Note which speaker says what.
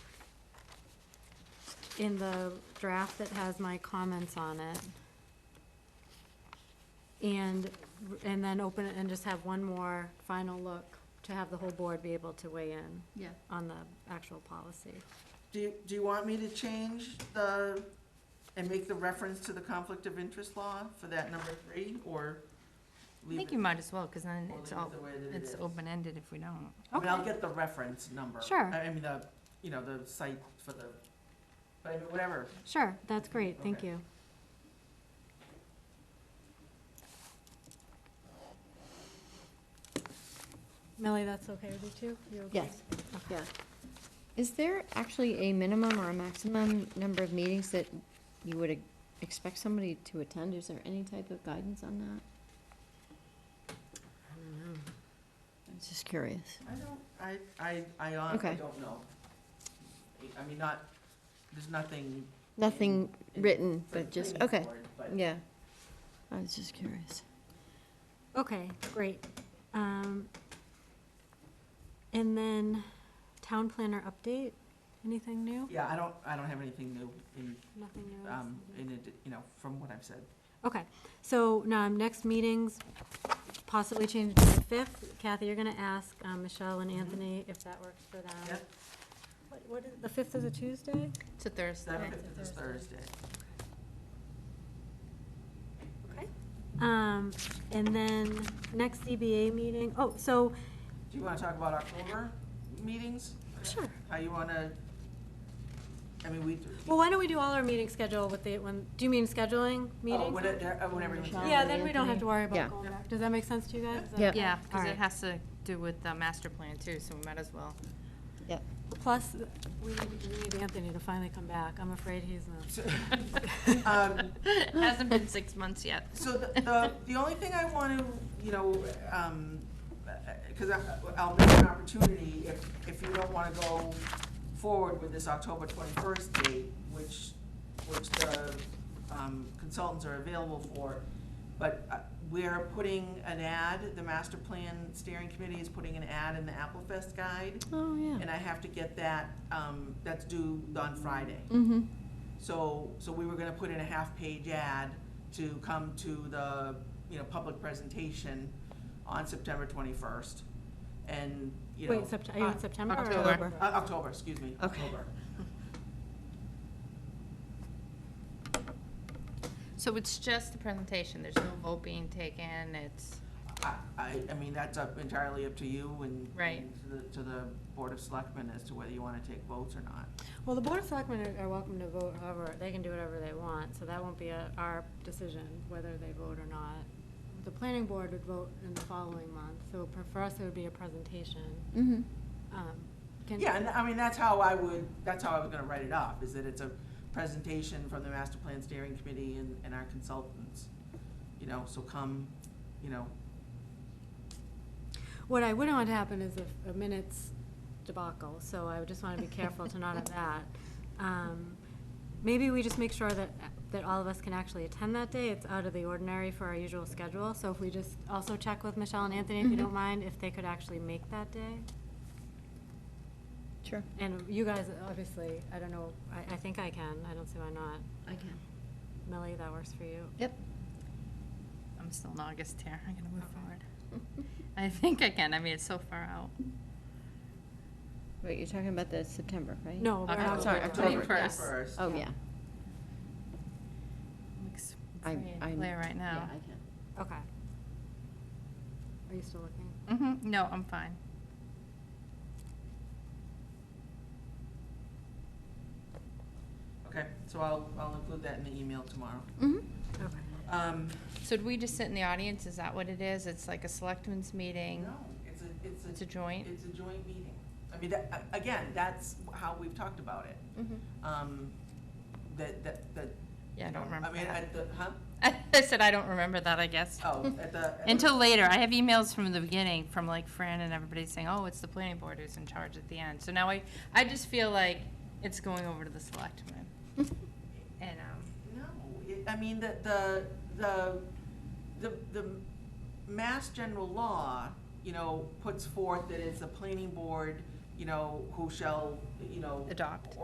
Speaker 1: in the draft that has my comments on it. And, and then open it and just have one more final look to have the whole board be able to weigh in
Speaker 2: Yeah,
Speaker 1: on the actual policy.
Speaker 3: Do you, do you want me to change the, and make the reference to the conflict of interest law for that number three, or
Speaker 4: I
Speaker 3: leave
Speaker 4: think
Speaker 3: it-
Speaker 4: you might as well, because then
Speaker 3: or
Speaker 4: it's
Speaker 3: leave it
Speaker 4: all,
Speaker 3: the way that it
Speaker 4: it's
Speaker 3: is?
Speaker 4: open-ended if we don't.
Speaker 3: I mean, I'll get the reference number.
Speaker 1: Sure.
Speaker 3: I I mean, the, you know, the site for the, but I mean, whatever.
Speaker 1: Sure, that's great, thank
Speaker 3: Okay.
Speaker 1: you. Millie, that's okay with you too? You okay?
Speaker 5: Yes, yeah. Is there actually a minimum or a maximum number of meetings that you would e- expect somebody to attend? Is there any type of guidance on that?
Speaker 1: Mm-hmm.
Speaker 5: I'm just curious.
Speaker 3: I don't, I, I, I honestly
Speaker 5: Okay.
Speaker 3: don't know. I mean, not, there's nothing.
Speaker 5: Nothing
Speaker 3: in-
Speaker 5: written,
Speaker 3: for the
Speaker 5: but just,
Speaker 3: planning
Speaker 5: okay,
Speaker 3: board, but-
Speaker 5: yeah. I was just curious.
Speaker 1: Okay, great. Um, And then town planner update, anything new?
Speaker 3: Yeah, I don't, I don't have anything new in,
Speaker 1: Nothing new?
Speaker 3: um, in it, you know, from what I've said.
Speaker 1: Okay, so now, next meetings, possibly change to the fifth. Kathy, you're gonna ask um, Michelle and
Speaker 3: Mhm.
Speaker 1: Anthony if that works for them.
Speaker 3: Yep.
Speaker 1: What- What, is- the fifth is a Tuesday?
Speaker 4: It's a Thursday.
Speaker 3: Seventh is Thursday.
Speaker 1: Okay. Um, and then, next CBA meeting, oh, so,
Speaker 3: Do you want to talk about October meetings?
Speaker 1: sure.
Speaker 3: How you want to, I mean, we.
Speaker 1: Well, why don't we do all our meeting schedule with the, when, do you mean scheduling meetings?
Speaker 3: Oh, whatever, uh, whatever you want.
Speaker 1: Yeah, then we don't have to worry
Speaker 5: Yeah.
Speaker 1: about going back. Does that make sense to you guys? Is that
Speaker 5: Yeah.
Speaker 1: okay?
Speaker 4: Yeah, because
Speaker 1: Alright.
Speaker 4: it has to do with the master plan too, so we might as well.
Speaker 5: Yep.
Speaker 1: Plus, we need, we need Anthony to finally come back. I'm afraid he's not.
Speaker 3: Um,
Speaker 4: It Hasn't been six months yet.
Speaker 3: So the, the, the only thing I want to, you know, um, because I'll make an opportunity, if, if you don't want to go forward with this October twenty-first date, which, which the um, consultants are available for, but uh, we're putting an ad, the master plan steering committee is putting an ad in the Apple Fest guide,
Speaker 5: Oh, yeah.
Speaker 3: and I have to get that, um, that's due on Friday.
Speaker 5: Mm-hmm,
Speaker 3: So, so we were gonna put in a half-page ad to come to the, you know, public presentation on September twenty-first. And, you know.
Speaker 1: Wait, Sept- are you in September or
Speaker 4: October.
Speaker 1: October?
Speaker 3: Uh, October, excuse me,
Speaker 5: Okay.
Speaker 3: October.
Speaker 4: So it's just the presentation, there's no vote being taken, it's,
Speaker 3: I, I, I mean, that's up entirely up to you and.
Speaker 4: Right.
Speaker 3: and To the, to the Board of Selectmen as to whether you wanna take votes or not.
Speaker 1: Well, the Board of Selectmen are- are welcome to vote however, they can do whatever they want, so that won't be a- our decision whether they vote or not. The planning board would vote in the following month, so for- for us, it would be a presentation.
Speaker 5: mm-hmm.
Speaker 1: Um, can-
Speaker 3: Mm. Yeah, and I mean, that's how I would, that's how I was gonna write it up, is that it's a presentation from the Master Plan Steering Committee and, and our consultants. You know, so come, you know,
Speaker 1: What I wouldn't want to happen is a- a minutes debacle, so I would just want to be careful to not have that. Um, Maybe we just make sure that, that all of us can actually attend that day. It's out of the ordinary for our usual schedule, so if we just also check with Michelle and Anthony, if you don't mind, if they could actually make that day.
Speaker 5: Sure.
Speaker 1: And you guys, obviously, I don't know, I, I think I can, I don't see why not.
Speaker 5: I can.
Speaker 1: Millie, that works for you?
Speaker 5: Yep.
Speaker 4: I'm still in August here, I'm gonna move forward. I think I can, I mean, it's so far out.
Speaker 5: Wait, you're talking about the September, right?
Speaker 1: No, we're
Speaker 4: October.
Speaker 1: not.
Speaker 5: Oh, Sorry, October, yeah.
Speaker 4: Yes.
Speaker 3: first.
Speaker 5: Oh, yeah.
Speaker 4: Looks
Speaker 5: I-
Speaker 4: free and
Speaker 5: I'm-
Speaker 4: clear right
Speaker 5: Yeah,
Speaker 4: now.
Speaker 5: I can.
Speaker 1: Okay. Are you still looking?
Speaker 4: hmm no, I'm fine.
Speaker 3: Okay, so I'll, I'll include that in the email tomorrow.
Speaker 5: Mm-hmm.
Speaker 1: Okay.
Speaker 3: Um,
Speaker 4: So do we just sit in the audience, is that what it is? It's like a selectmen's meeting?
Speaker 3: no, it's a, it's a.
Speaker 4: It's a joint?
Speaker 3: It's a joint meeting. I mean, that, a- again, that's how we've talked about it. Um, that, that, that.
Speaker 4: Yeah, I
Speaker 3: you
Speaker 4: don't
Speaker 3: know, I
Speaker 4: remember
Speaker 3: mean,
Speaker 4: that.
Speaker 3: at the, huh?
Speaker 4: I said I don't remember that, I guess.
Speaker 3: Oh, at the. at the-
Speaker 4: Until later, I have emails from the beginning from like Fran and everybody saying, "Oh, it's the planning board who's in charge at the end." So now I, I just feel like it's going over to the selectmen. And um,
Speaker 3: No, it- I mean, the, the, the, the, the mass general law, you know, puts forth that it's the planning board, you know, who shall, you know.
Speaker 4: Adopt.